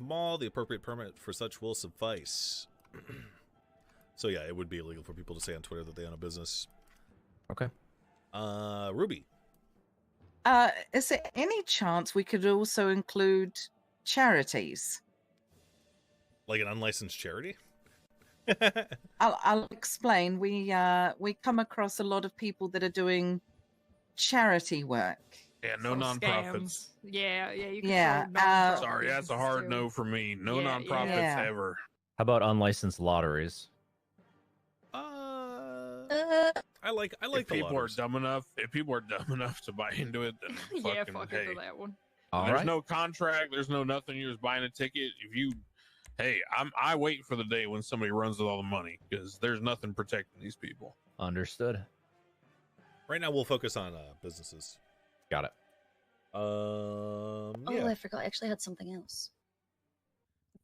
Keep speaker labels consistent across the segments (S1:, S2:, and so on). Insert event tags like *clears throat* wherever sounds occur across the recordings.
S1: mall, the appropriate permit for such will suffice. *clears throat* so yeah, it would be illegal for people to say on Twitter that they own a business.
S2: Okay.
S1: Uh, Ruby.
S3: Uh, is there any chance we could also include charities?
S1: Like an unlicensed charity?
S3: I'll, I'll explain. We uh, we come across a lot of people that are doing charity work.
S4: Yeah, no
S5: Some
S4: nonprofits.
S5: scams. Yeah, yeah. You can
S3: Yeah,
S5: find nonprofit
S1: Oh.
S3: uh,
S4: Sorry, that's a
S5: businesses
S4: hard
S5: too.
S4: no for me. No
S5: Yeah,
S4: nonprofits
S3: yeah.
S4: ever.
S2: How about unlicensed lotteries?
S1: Uh, I like I like
S4: if
S1: the
S4: people
S1: lotteries.
S4: are dumb enough, if people are dumb *laughs* enough to buy into it, then fucking,
S5: *laughs* *laughs* yeah, fuck
S4: hey.
S5: into that one.
S2: All
S4: there's
S2: right.
S4: no contract. There's no nothing. You're just buying a ticket. If you, hey, I'm I wait for the day when somebody runs with all the money because there's nothing protecting these people.
S2: Understood.
S1: Right now, we'll focus on uh, businesses.
S2: Got it.
S1: Um,
S6: Oh,
S1: yeah.
S6: I forgot. I actually had something else.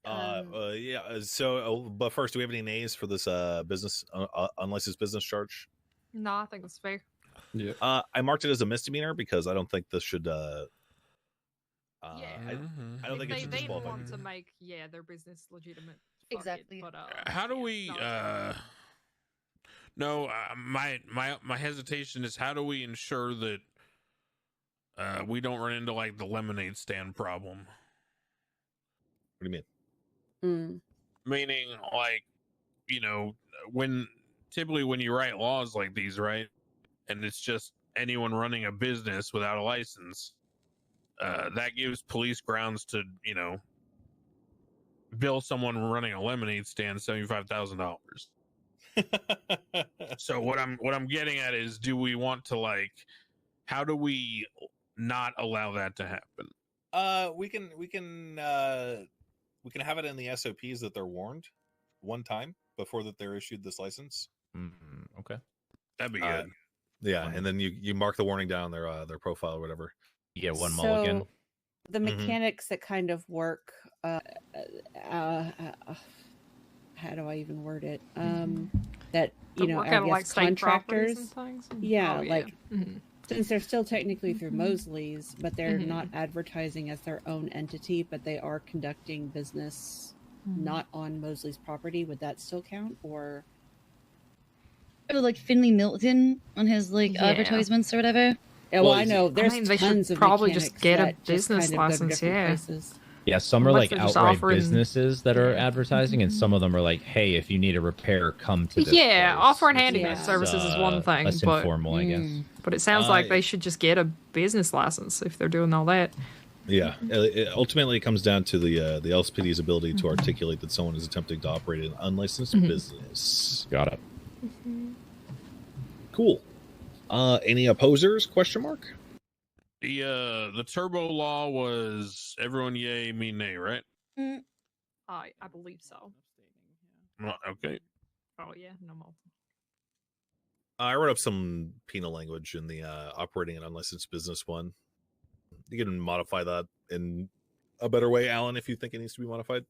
S1: Uh,
S6: Um,
S1: uh, yeah. uh, So, uh, but first, do we have any nays for this uh, business uh, uh, unlicensed business charge?
S5: No, I think it's fair.
S1: Uh, I marked it as a misdemeanor because I don't think this should. Uh, uh,
S5: Yeah.
S1: I,
S2: Mm-hmm.
S1: I don't
S5: If
S1: think it
S5: they,
S1: should
S5: they
S1: disqualify.
S5: want to make yeah their business legitimate. fuck it,
S6: Exactly.
S5: but, uh,
S4: how do
S5: yeah,
S4: we?
S5: no, it's
S4: uh No, uh, my my my hesitation is how do we ensure that uh we don't run into like the lemonade stand problem?
S1: What do you mean?
S6: mm,
S4: meaning like you know when typically when you write laws like these right and it's just anyone running a business without a license uh, that gives police grounds to you know bill someone running a lemonade stand $75000 so what i'm what i'm getting at is do we want to like how do we not allow that to happen
S1: *laughs* Uh, we can we can uh, we can have it in the SOPs that they're warned one time before that they're issued this license.
S2: Mm, okay.
S4: that'd be
S1: Uh,
S4: good
S1: Yeah, and then you you mark the warning down on their uh, their profile or whatever.
S2: You get one
S7: So,
S2: mulligan.
S6: Mm-hmm.
S7: The
S1: Mhm.
S7: mechanics that kind of work. Uh, uh, uh, uh, how do I even word it? Um, that
S5: Mm-hmm. the
S7: you know,
S5: work
S7: I
S5: out of,
S7: guess
S5: like state properties
S7: contractors,
S5: and things.
S7: Yeah,
S5: Oh,
S7: like-
S5: Mhm.
S7: since they're still technically through
S5: Mhm.
S7: Mosley's, but they're
S5: Mhm.
S7: not advertising as their own entity, but they are conducting business Mm-hmm.
S5: Mm-hmm.
S7: not on Mosley's property. Would that still count? Or
S6: oh, like Finley Milton on his like
S5: Yeah.
S6: advertisements or whatever.
S7: yeah, well,
S2: Well,
S7: I know there's
S5: mean, they should
S7: tons of
S5: probably just
S7: mechanics
S5: get a
S7: that just
S5: business
S7: kind of go to
S5: license,
S7: different
S5: yeah.
S7: places.
S2: Yeah, some are
S5: Unless
S2: like
S5: they're just
S2: outright
S5: offering-
S2: businesses that are
S5: Yeah.
S2: advertising, and some of them are like, "Hey, if you need a repair, come to this."
S5: Yeah,
S2: place."
S5: offering
S2: It's
S7: handyman
S2: less,
S5: services is one thing,
S2: Less
S5: but-
S2: informal, I guess.
S6: Mm.
S5: But it sounds
S1: Uh,
S5: like they should just get a business license if they're doing all that.
S1: Yeah, uh, it, ultimately, it comes down to the uh, the LSPD's ability to articulate that someone is attempting to operate an unlicensed
S5: Mhm.
S1: business.
S2: Got it.
S1: Cool. Uh, any opposers? Question mark.
S4: The uh the turbo law was everyone yay, me nay, right?
S5: I I believe so.
S4: Well, Okay.
S5: Oh yeah, no more.
S1: I wrote up some penal language in the uh, operating an unlicensed business one. You can modify that in a better way, Alan, if you think it needs to be modified.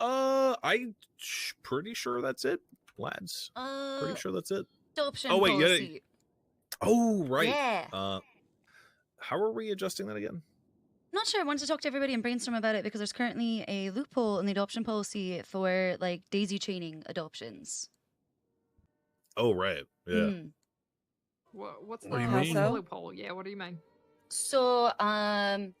S1: Uh, I'm sh- pretty sure that's it, lads.
S8: Uh,
S1: Pretty
S2: Oh.
S1: sure that's it.
S8: adoption
S1: Oh, wait, yeah,
S8: policy.
S1: Oh, right.
S8: Yeah.
S1: Uh, how are we adjusting that again?
S6: Not sure. I wanted to talk to everybody and brainstorm about it because there's currently a loophole in the adoption policy for like daisy chaining adoptions.
S1: Oh, right. Yeah.
S2: Hmm.
S6: Mhm.
S5: What, what's
S4: What do
S5: the
S4: you
S7: mean?
S5: the loophole? Yeah, what do you mean?
S6: So, um,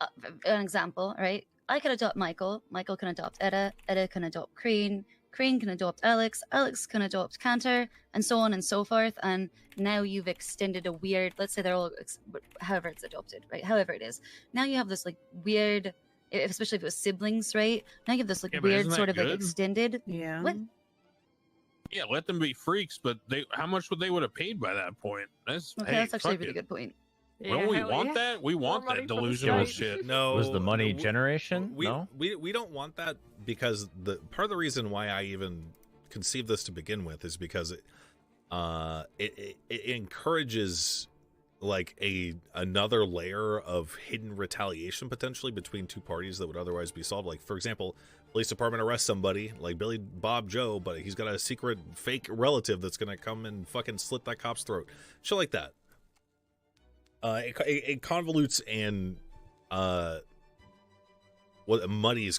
S6: uh, an example, right? I can adopt Michael. Michael can adopt Etta. Etta can adopt Crane. Crane can adopt Alex. Alex can adopt Cantor, and so on and so forth. And now you've extended a weird. Let's say they're all, ex- but however it's adopted, right? However it is. Now you have this like weird, i- especially if it was siblings, right? Now you have this like
S4: Yeah, but
S6: weird
S4: isn't that
S6: sort of like
S4: good?
S6: extended.
S7: Yeah.
S6: What?
S4: Yeah, let them be freaks, but they how much would they would have paid by that point? That's
S6: Okay,
S4: hey,
S6: that's actually a
S4: fuck
S6: really
S4: it.
S6: good point.
S4: Don't we
S5: hell
S4: want
S5: yeah.
S4: that? We want
S5: money
S4: that
S5: for the
S4: delusional
S2: state.
S4: shit.
S1: No.
S2: was the money
S1: generation?
S2: generation?
S1: Oh, we,
S2: no.
S1: we we don't want that because the part of the reason why I even conceived this to begin with is because it uh it, it, it encourages like a another layer of hidden retaliation potentially between two parties that would otherwise be solved like for example police department arrests somebody like billy bob joe but he's got a secret fake relative that's gonna come and fucking slit that cop's throat shit like that uh it, it, it convolutes and uh what muddies